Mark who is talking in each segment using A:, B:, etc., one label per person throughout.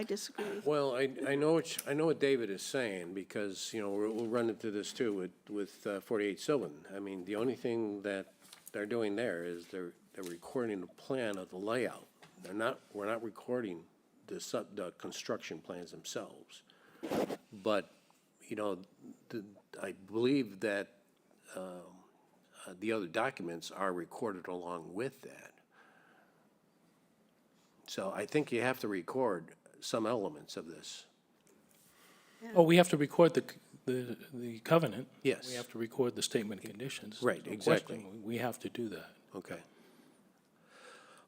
A: I disagree.
B: Well, I, I know what, you- I know what David is saying, because, you know, we're- we'll run into this too with, with uh, 48 Sylvan. I mean, the only thing that they're doing there is they're, they're recording the plan of the layout. They're not, we're not recording the sub, the construction plans themselves. But, you know, the, I believe that um, uh, the other documents are recorded along with that. So I think you have to record some elements of this.
C: Oh, we have to record the, c- the, the covenant.
B: Yes.
C: We have to record the statement of conditions.
B: Right,
C: No
B: exactly.
C: question. We have to do that.
B: Okay.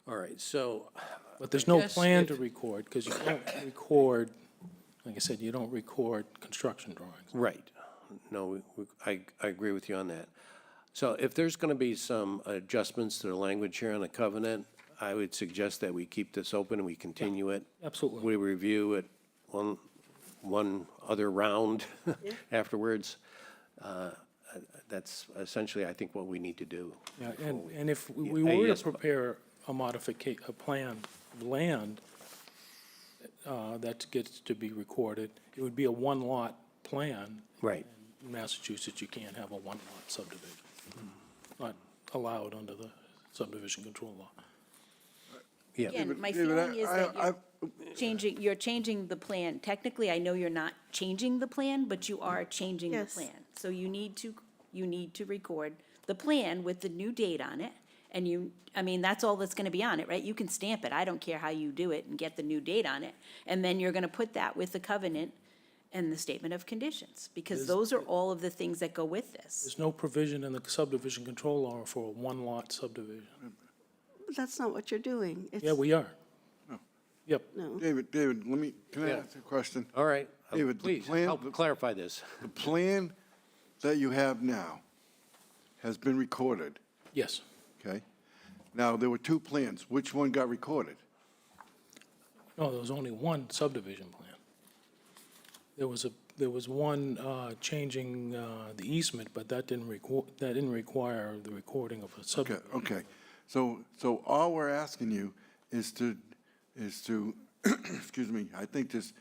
B: All right, so,
C: But there's no
B: guess
C: plan
B: if-
C: to record, because you don't record, like I said, you don't record construction drawings.
B: right, no, we- we- I, I agree with you on that. So if there's going to be some adjustments to the language here on the covenant, I would suggest that we keep this open and we continue it.
C: Absolutely.
B: We review it one, one other round afterwards. Uh, uh, That's essentially, I think, what we need to do.
C: Yeah, and, and if we- we
B: Yeah,
C: were
B: yes,
C: to
B: but-
C: prepare a modifica, a plan of land uh, that gets to be recorded, it would be a one-lot plan.
B: Right.
C: In Massachusetts, you can't have a one-lot subdivision. Not allowed under the subdivision control law.
B: Yeah,
D: Again, my
E: yeah, but I-
D: feeling is
E: I-
D: that you're changing, you're changing the plan. Technically, I know you're not changing the plan, but you are changing the
A: Yes.
D: plan. So you need to, you need to record the plan with the new date on it. And you, I mean, that's all that's gonna be on it, right? You can stamp it. I don't care how you do it and get the new date on it. And then you're gonna put that with the covenant and the statement of conditions, because those are all of the things that go with this.
C: There's no provision in the subdivision control law for a one-lot subdivision.
A: But That's not what you're doing. It's-
C: Yeah, we are. Yep.
E: David, David, let me, can I
B: Yeah.
E: ask a question?
B: all right. uh,
E: David, the
B: Please,
E: plan-
B: help clarify this.
E: The plan that you have now has been recorded,
C: Yes.
E: okay? Now, there were two plans. Which one got recorded?
C: No, there was only one subdivision plan. There was a, there was one uh, changing uh, the easement, but that didn't record, that didn't require the recording of a
E: Okay, oh.
C: subdivision.
E: okay. So, so all we're asking you is to, is to, excuse me, I think just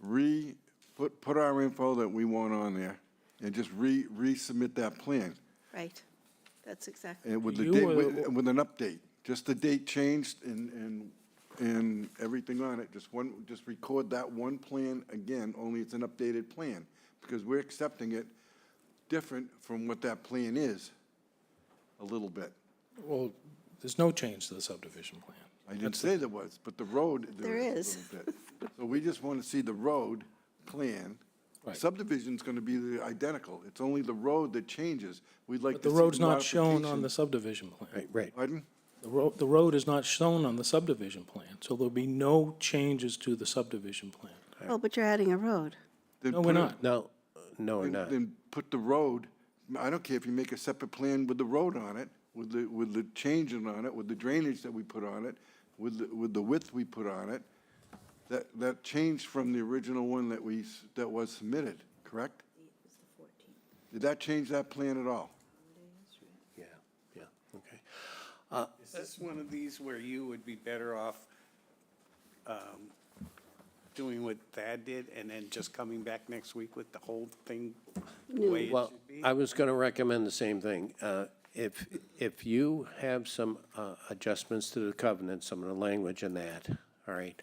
E: re, put, put our info that we want on there and just re, resubmit that plan
A: Right. That's exactly,
E: and with the
C: You
E: date,
C: were-
E: with with an update. Just the date changed and, and, and everything on it. Just one, just record that one plan again, only it's an updated plan. Because we're accepting it different from what that plan is, a little bit.
C: Well, there's no change to the subdivision plan.
E: I didn't say there was, but the road, there
A: There
E: is a little bit. So we just want to see the road plan.
C: Right.
E: Subdivision's going to be the identical. It's only the road that changes. We'd like
C: But
E: to
C: the
E: see.
C: road's not shown on
E: modification.
C: the subdivision plan.
B: Right.
E: Pardon?
C: The road, the road is not shown on the subdivision plan, so there'll be no changes to the subdivision plan.
A: well, oh, but you're adding a road.
E: Then
C: No, we're
E: put it-
C: not.
B: No, no, we're
E: then-
B: not.
E: Then put the road, I don't care if you make a separate plan with the road on it, with the, with the changing on it, with the drainage that we put on it, with, the- with the width we put on it. That, that changed from the original one that we, s- that was submitted, correct? Did that change that plan at all?
B: Yeah, yeah, okay.
F: Is this one of these where you would be better off um, doing what Thad did and then just coming back next week with the whole thing the way it
B: Well,
F: should be?
B: I was going to recommend the same thing. Uh, If, if you have some uh, adjustments to the covenant, some of the language in that, all right,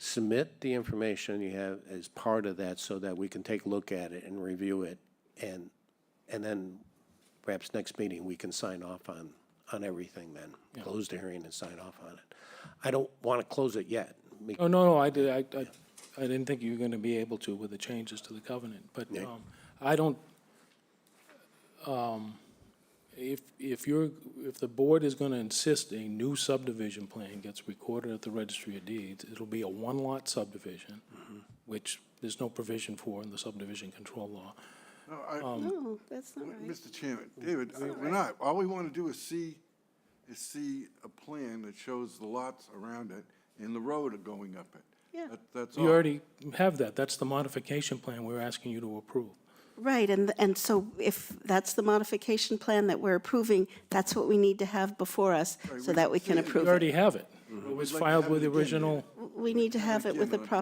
B: submit the information you have as part of that so that we can take a look at it and review it. And, and then perhaps next meeting, we can sign off on, on everything then. Close the hearing and sign off on it. I don't want to close it yet. be-
C: Oh, no, no, I did, I, I, I didn't think you were gonna be able to with the changes to the covenant, but,
B: Yeah.
C: um, I don't, um, if, if you're, if the board is gonna insist a new subdivision plan gets recorded at the registry of deeds, it'll be a one-lot subdivision, which there's no provision for in the subdivision control law.
E: No, I-
A: No, Oh, that's not Um, right.
E: Mr. Chairman, David, I- we're not, all we want to do is see, is see a plan that shows the lots around it and the road going up it.
A: Yeah.
E: That- That's all.
C: You already have that, that's the modification plan we're asking you to approve.
A: Right, and, and so if that's the modification plan that we're approving, that's what we need to have before us so that we can
E: Yeah,
A: approve
C: You
A: it.
C: already have it. It was
E: Mm-hmm. like to
C: filed
E: have it
C: with the
E: again, yeah.
C: original.
A: We need to have it with a
E: Again, uh,
A: proper